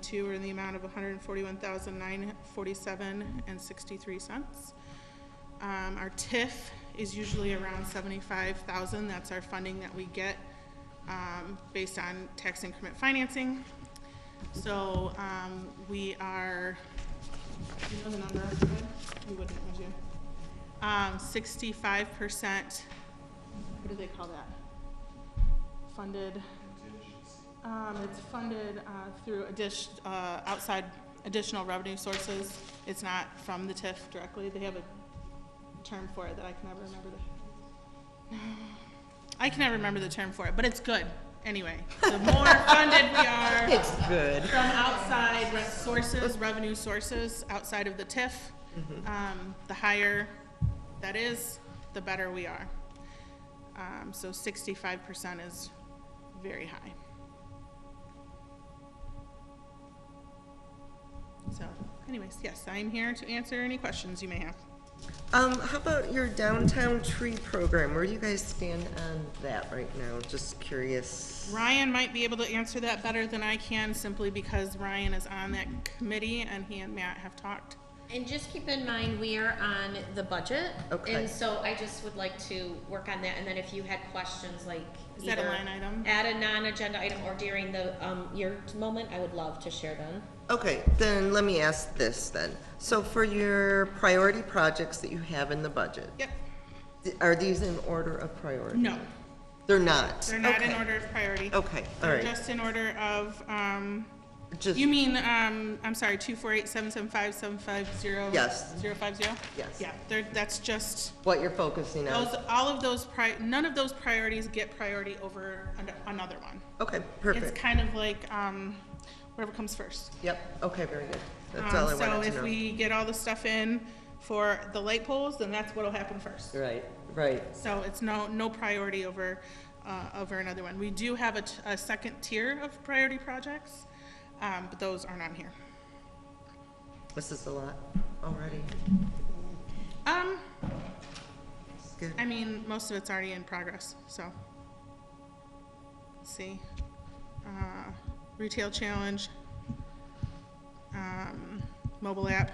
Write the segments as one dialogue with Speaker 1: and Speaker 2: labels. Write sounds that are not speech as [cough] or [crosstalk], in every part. Speaker 1: Two are in the amount of one hundred and forty-one thousand nine forty-seven and sixty-three cents. Um, our TIF is usually around seventy-five thousand, that's our funding that we get, um, based on tax increment financing. So, um, we are, do you know the number, Ed? You wouldn't, would you? Um, sixty-five percent, what do they call that? Funded. Um, it's funded, uh, through addition, uh, outside additional revenue sources. It's not from the TIF directly. They have a term for it that I can never remember the. [sighs] I can never remember the term for it, but it's good anyway. The more funded we are.
Speaker 2: It's good.
Speaker 1: From outside re- sources, revenue sources, outside of the TIF,
Speaker 2: Mm-hmm.
Speaker 1: um, the higher that is, the better we are. Um, so sixty-five percent is very high. So anyways, yes, I am here to answer any questions you may have.
Speaker 2: Um, how about your downtown tree program? Where do you guys stand on that right now? Just curious.
Speaker 1: Ryan might be able to answer that better than I can simply because Ryan is on that committee and he and Matt have talked.
Speaker 3: And just keep in mind, we are on the budget.
Speaker 2: Okay.
Speaker 3: And so I just would like to work on that, and then if you had questions, like.
Speaker 1: Is that a
Speaker 3: either
Speaker 1: line item?
Speaker 3: Add a non-agenda item or during the, um, your moment, I would love to share them.
Speaker 2: Okay, then let me ask this then. So for your priority projects that you have in the budget,
Speaker 1: Yep,
Speaker 2: th- are these in order of priority?
Speaker 1: no,
Speaker 2: They're not?
Speaker 1: they're not in
Speaker 2: Okay.
Speaker 1: order of priority.
Speaker 2: Okay, all
Speaker 1: They're
Speaker 2: right.
Speaker 1: just in order of, um,
Speaker 2: Just,
Speaker 1: you mean, um, I'm sorry, two four eight seven seven five seven five zero?
Speaker 2: Yes.
Speaker 1: Zero five zero?
Speaker 2: Yes.
Speaker 1: Yeah, they're, that's just,
Speaker 2: what you're focusing on?
Speaker 1: those, all of those pri, none of those priorities get priority over an- another one.
Speaker 2: Okay,
Speaker 1: It's
Speaker 2: perfect.
Speaker 1: kind of like, um, whatever comes first.
Speaker 2: Yep, okay, very good. That's
Speaker 1: Um,
Speaker 2: all I wanted
Speaker 1: So if
Speaker 2: to know.
Speaker 1: we get all the stuff in for the light poles, then that's what'll happen first.
Speaker 2: Right, right.
Speaker 1: So it's no, no priority over, uh, over another one. We do have a, t- a second tier of priority projects, um, but those aren't on here.
Speaker 2: This is a lot already.
Speaker 1: Um,
Speaker 2: It's good.
Speaker 1: I mean, most of it's already in progress, so. Let's see. Uh, retail challenge, um, mobile app,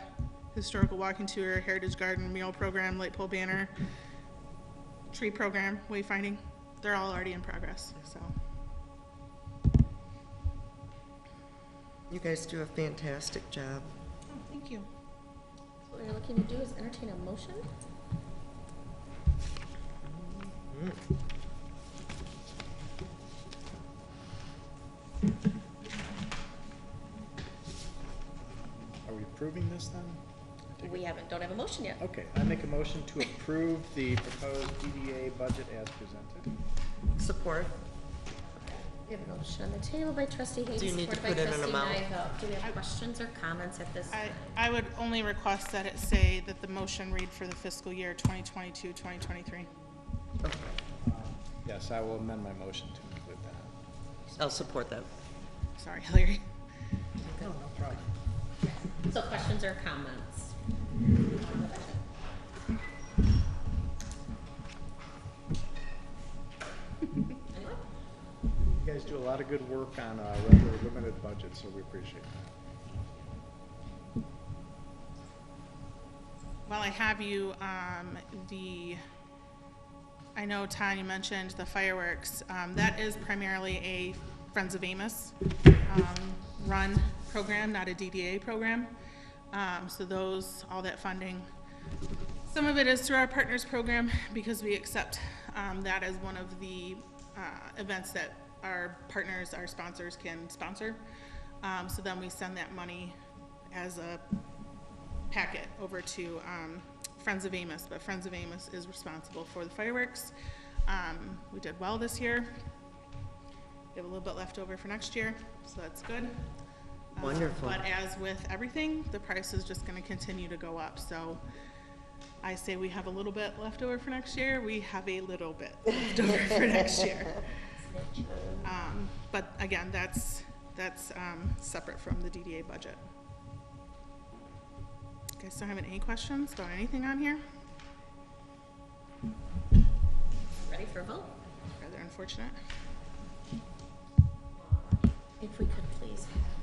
Speaker 1: historical walking tour, heritage garden, meal program, light pole banner, tree program, wayfinding. They're all already in progress, so.
Speaker 2: You guys do a fantastic job.
Speaker 1: Oh, Thank you.
Speaker 3: What we're looking to do is entertain a motion?
Speaker 4: Are we approving this then?
Speaker 3: We haven't, don't have a motion yet.
Speaker 4: Okay, I make a motion to approve the proposed DDA budget as presented.
Speaker 2: Support?
Speaker 3: We have a motion on the table by trustee Hayes,
Speaker 2: Do you need to
Speaker 3: supported by
Speaker 2: put in an
Speaker 3: trustee
Speaker 2: amount?
Speaker 3: Nyvel. Do we have questions or comments at this?
Speaker 1: I, I would only request that it say that the motion read for the fiscal year 2022, 2023.
Speaker 4: Yes, I will amend my motion to include that.
Speaker 2: I'll support that.
Speaker 1: Sorry, Hillary.
Speaker 3: So questions or comments? Anyone?
Speaker 4: You guys do a lot of good work on a rather limited budget, so we appreciate that.
Speaker 1: While I have you, um, the, I know, Tanya mentioned the fireworks. Um, that is primarily a Friends of Amos, um, run program, not a DDA program. Um, so those, all that funding, some of it is through our partners program because we accept, um, that as one of the, uh, events that our partners, our sponsors can sponsor. Um, so then we send that money as a packet over to um, Friends of Amos, but Friends of Amos is responsible for the fireworks. Um, We did well this year. We have a little bit left over for next year, so that's good. Um,
Speaker 2: Wonderful.
Speaker 1: But as with everything, the price is just going to continue to go up, so I say we have a little bit left over for next year. We have a little bit [laughs] left over for next year. Um, But again, that's, that's um, separate from the DDA budget. You guys don't have any questions about anything on here?
Speaker 3: Ready for a vote?
Speaker 1: Rather unfortunate.
Speaker 3: If we could please have